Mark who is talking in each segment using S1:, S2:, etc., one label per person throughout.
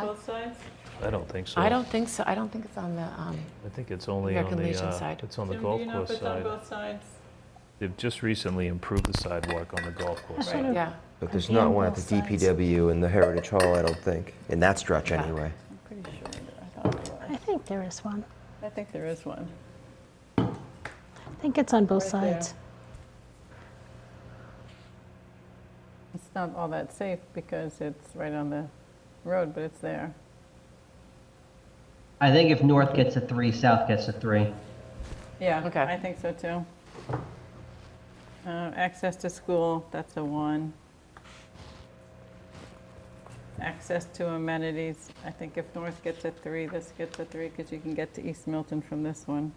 S1: both sides?
S2: I don't think so.
S3: I don't think so, I don't think it's on the, um,
S2: I think it's only on
S3: American
S2: the,
S3: Legion
S2: uh,
S3: side.
S2: it's on the
S1: Jim, do
S2: golf
S1: you know if
S2: course
S1: it's on
S2: side.
S1: both sides?
S2: They've just recently improved the sidewalk on the golf course
S1: Right.
S2: side.
S3: yeah.
S4: But there's not one at the DPW and the Heritage Hall, I don't think, in that stretch
S3: Yeah.
S4: anyway.
S1: I'm pretty sure that I thought there
S5: I
S1: was.
S5: think there is one.
S1: I think there is one.
S5: I think it's on both
S1: Right there.
S5: sides.
S1: It's not all that safe because it's right on the road, but it's there.
S6: I think if north gets a three, south gets a three.
S1: Yeah,
S3: Okay.
S1: I think so too. Uh, Access to school, that's a one. Access to amenities, I think if north gets a three, this gets a three because you can get to East Milton from this one.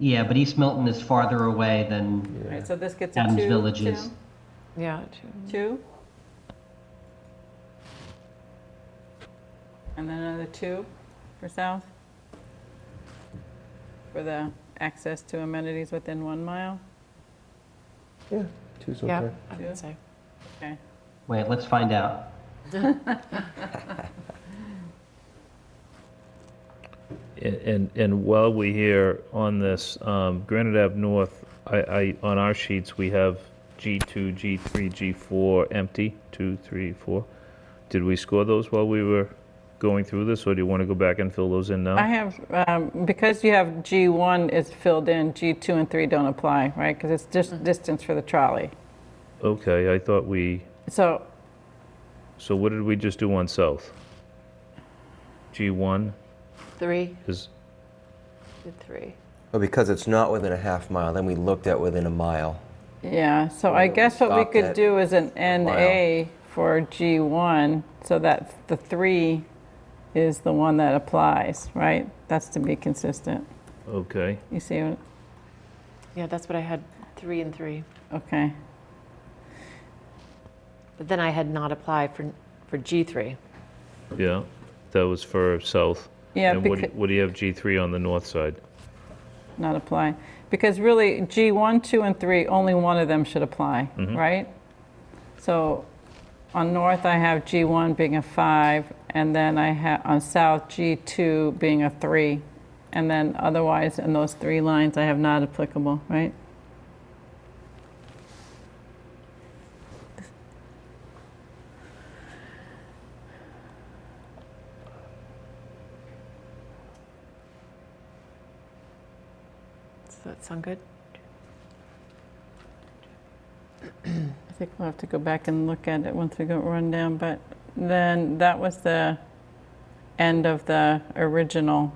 S6: Yeah, but East Milton is farther away than,
S1: Right, so this gets a
S6: Adams
S1: two,
S6: Village is-
S1: Tim?
S3: Yeah, true.
S1: Two? And then another two for south? For the access to amenities within one mile?
S4: Yeah, two's
S3: yeah,
S4: okay.
S3: I would say.
S1: Okay.
S6: wait, let's find out.
S2: And- And, and while we here on this, um, Granite Ave North, I, I, on our sheets, we have G2, G3, G4 empty, two, three, four. Did we score those while we were going through this, or do you want to go back and fill those in now?
S1: I have, um, because you have G1 is filled in, G2 and 3 don't apply, right? Because it's just distance for the trolley.
S2: Okay, I thought we,
S1: So,
S2: so what did we just do on south? G1
S3: Three,
S2: is,
S3: did three.
S4: But because it's not within a half mile, then we looked at within a mile.
S1: yeah, so I
S4: Well, we
S1: guess what we
S4: stopped
S1: could
S4: at
S1: do is an
S4: mile.
S1: NA for G1, so that the 3 is the one that applies, right? That's to be consistent.
S2: okay.
S1: You see, what-
S3: Yeah, that's what I had, three and three.
S1: okay.
S3: But then I had not applied for, for G3.
S2: Yeah, that was for south.
S1: Yeah,
S2: And what do-
S1: becau-
S2: what do you have G3 on the north side?
S1: not apply. Because really, G1, 2, and 3, only one of them should apply, right? So on north, I have G1 being a 5, and then I have, on south, G2 being a 3. And then otherwise, in those three lines, I have not applicable, right?
S3: Does that sound good?
S1: I think we'll have to go back and look at it once we go run down, but then that was the end of the original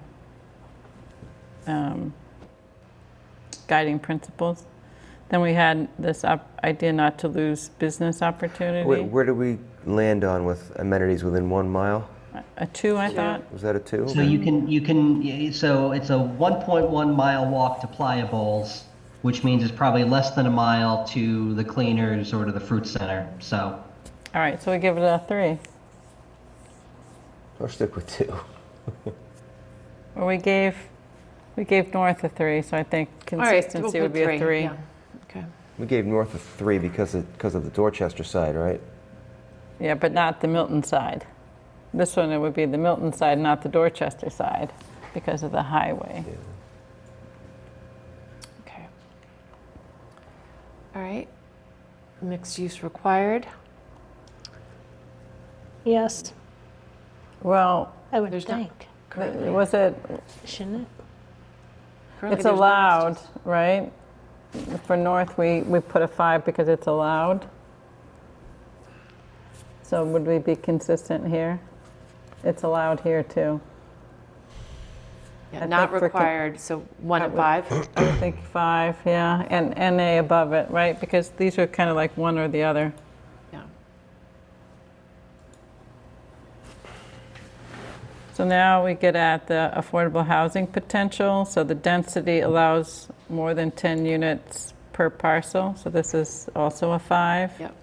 S1: um, guiding principles. Then we had this op- idea not to lose business
S4: Wait,
S1: opportunity.
S4: where did we land on with amenities within one mile?
S1: A two, I thought.
S4: Was that a two?
S6: So you can, you can, so it's a 1.1 mile walk to Playa Bowls, which means it's probably less than a mile to the cleaners or to the fruit center, so.
S1: All right, so we give it a three.
S4: I'll stick with two.
S1: Or we gave, we gave North a three, so I think
S3: All right, we'll
S1: consistency would
S3: put
S1: be a three.
S3: yeah. Okay,
S4: We gave North a three because of, because of the Dorchester side, right?
S1: Yeah, but not the Milton side. This one, it would be the Milton side, not the Dorchester side, because of the highway.
S3: okay. All right, mixed use required.
S5: Yes,
S1: Well,
S5: I would
S3: There's not-
S5: think,
S3: Currently,
S1: was it,
S5: shouldn't it?
S3: currently
S1: it's
S3: there's no mixed
S1: allowed,
S3: use.
S1: right? For North, we, we put a five because it's allowed. So would we be consistent here? It's allowed here too.
S3: Yeah,
S1: I
S3: Not
S1: think for con-
S3: required, so one and
S1: would-
S3: five.
S1: I think five, yeah, and NA above it, right? Because these are kind of like one or the other.
S3: Yeah.
S1: So now we get at the affordable housing potential. So the density allows more than 10 units per parcel. So this is also a five.
S3: Yep.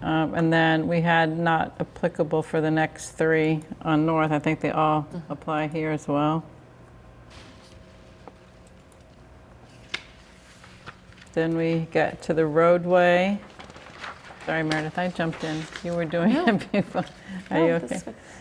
S1: Um, And then we had not applicable for the next three on North. I think they all
S3: Mm-hmm.
S1: apply here as well. Then we get to the roadway. Sorry, Meredith, I jumped in. You were doing it before. Are you
S3: No,
S1: okay?
S3: that's good.